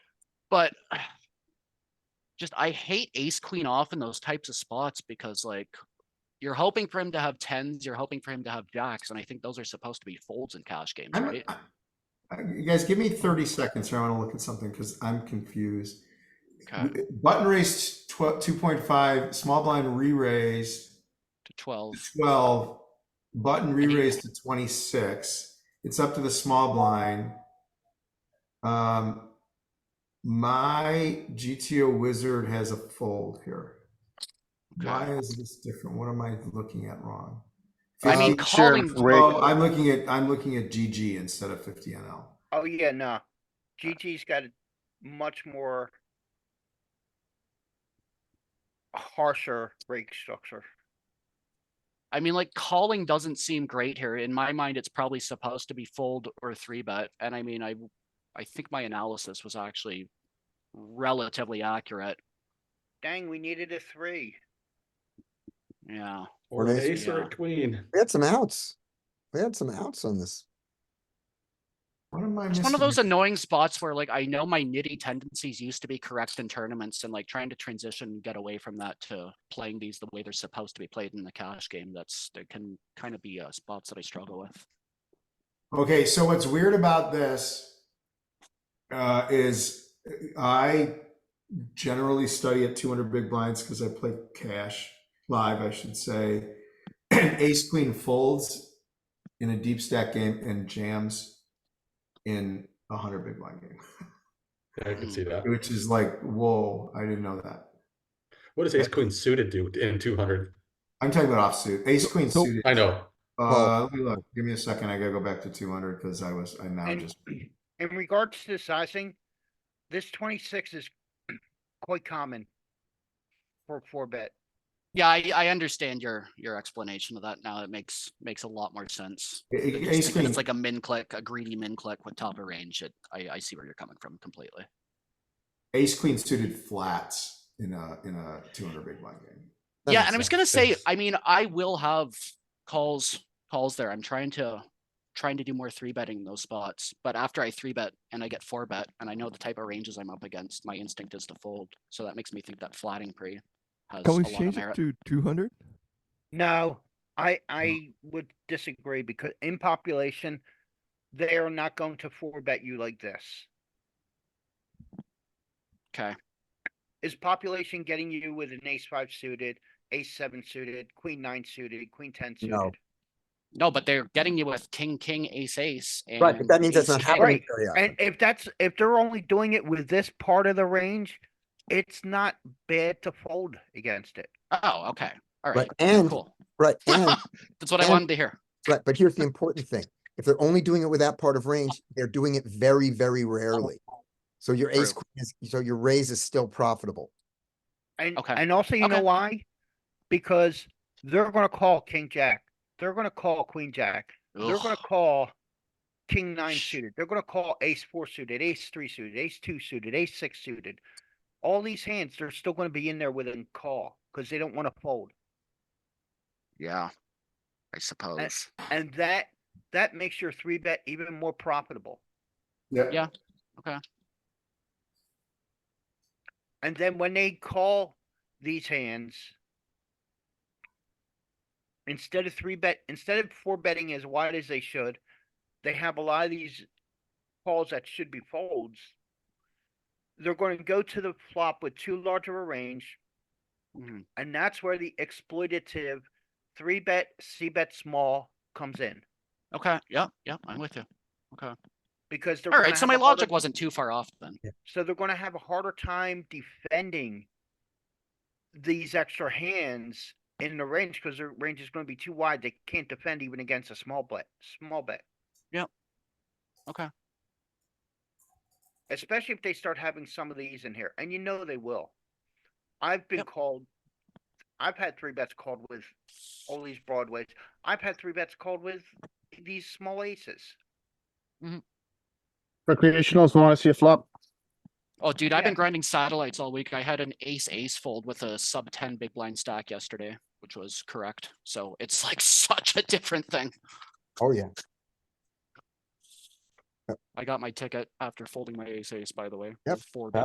But just I hate ace queen off in those types of spots because like you're hoping for him to have tens, you're hoping for him to have jacks, and I think those are supposed to be folds in cash games, I'm, right? I- I- you guys, give me 30 seconds here. I want to look at something because I'm confused. Okay, Button raised 12, 2.5, small blind re raised to twelve. 12, button re raised to 26. It's up to the small blind. Um, my GTO wizard has a fold here. Why is this different? What am I looking at wrong? I mean, Fifty- calling- oh, I'm looking at I'm looking at GG instead of 50 NL. Oh, yeah, no. GT's got a much more harsher rake structure. I mean, like calling doesn't seem great here. In my mind, it's probably supposed to be fold or three bet. And I mean, I, w- I think my analysis was actually relatively accurate. Dang, we needed a three. Yeah. Or an ace or Yeah. a queen. We had some outs. We had some outs on this. What am I It's missing? one of those annoying spots where like I know my nitty tendencies used to be correct in tournaments and like trying to transition and get away from that to playing these the way they're supposed to be played in the cash game. That's there can kind of be uh, spots that I struggle with. Okay, so what's weird about this uh, is I generally study at 200 big blinds because I play cash live, I should say. And ace queen folds in a deep stack game and jams in a 100 big blind game, Yeah, I can see that. which is like, whoa, I didn't know that. What does ace queen suited do in two hundred? I'm talking about offsuit. Ace queen So- suited. I know. Uh, let me look. Give me a second. I gotta go back to 200 because I was, I now And- just. In regards to sizing, this twenty-six is quite common for four bet. Yeah, I, I understand your your explanation of that now. It makes makes a lot more sense. A- I a- just Ace think that queen. It's like a min click, a greedy min click with top of range. It, I, I see where you're coming from completely. ace queen suited flats in a in a 200 big blind game That yeah, makes and I was sense. gonna say, Yes. I mean, I will have calls calls there. I'm trying to trying to do more three betting in those spots, but after I three bet and I get four bet and I know the type of ranges I'm up against, my instinct is to fold. So that makes me think that flatting pre has Can a we lot of change it merit. to two hundred? No, I, I would disagree because in population, they are not going to four bet you like this. Okay. Is population getting you with an ace five suited, ace seven suited, queen nine suited, queen ten No. suited? No, but they're getting you with king, king, ace, ace. And Right, but that means that's ace not jack. happening Right, very often. And if that's, if they're only doing it with this part of the range, it's not bad to fold against it. Oh, okay. All Right, right. and- cool. Right, and, That's what I and- wanted to hear. right, but here's the important thing. If they're only doing it with that part of range, they're doing it very, very rarely. So your ace, True. queen is, so your raise is still profitable. And, Okay. and also, you know Okay. why? Because they're gonna call king jack, they're gonna call queen jack, They're gonna Ugh. call king nine Sh- suited. They're gonna call ace four suited, ace three suited, ace two suited, ace six suited. All these hands, they're still gonna be in there with a call because they don't wanna fold. Yeah, I suppose. And that, that makes your three bet even more profitable. Yeah. And then when they call these hands, instead of three bet, instead of four betting as wide as they should, they have a lot of these calls that should be folds. They're going to go to the flop with too large of a range, Mhm. and that's where the exploitative three bet, C bet small comes in Okay. Yeah. Yeah. I'm with you. Okay. because they're All gonna right. So have my a harder- logic wasn't too far off then. So they're gonna have a harder time defending these extra hands in the range, because their range is gonna be too wide. They can't defend even against a small bet, small bet. Yep. Okay. Especially if they start having some of these in here, and you know they will. I've been Yep. called, I've had three bets called with all these broadways. I've had three bets called with these small aces. Recreationals want to see a flop. Oh, dude, I've Yeah. been grinding satellites all week. I had an ace ace fold with a sub ten big blind stack yesterday, which was correct. So it's like such a different thing. Oh, yeah. I got my ticket after folding my ace ace, by the way. Yep. with Four